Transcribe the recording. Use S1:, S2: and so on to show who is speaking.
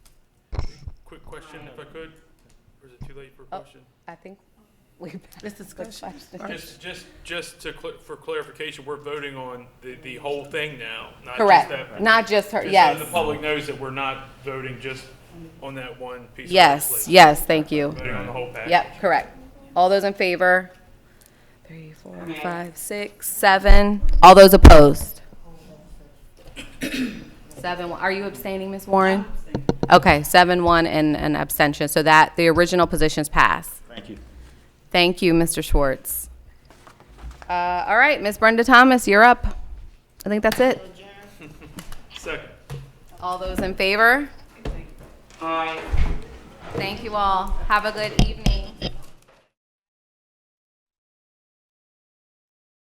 S1: question if I could? Or is it too late for a
S2: Oh.
S1: question?
S2: I think we
S3: This
S2: passed the
S3: discussion.
S2: question.
S1: Just, just, just to, cl- for clarification, we're voting on the, the whole thing now, not just
S2: Correct,
S1: that.
S2: not just her,
S1: just so The
S2: yes.
S1: public knows that we're not voting just on that one piece. of
S2: Yes,
S1: legislation.
S2: yes, thank you.
S1: Voting on the whole package.
S2: Yep, correct. All those in favor? Three, four, five, six, seven. All those opposed? Seven, one. are you abstaining, Ms. Warren? Okay, seven, one, and an abstention, so that, the original positions pass.
S4: Thank you.
S2: Thank you, Mr. Schwartz. Uh, all right, Ms. Brenda Thomas, you're up. I think that's it.
S1: Second.
S2: All those in favor? Aye. Thank you all. Have a good evening.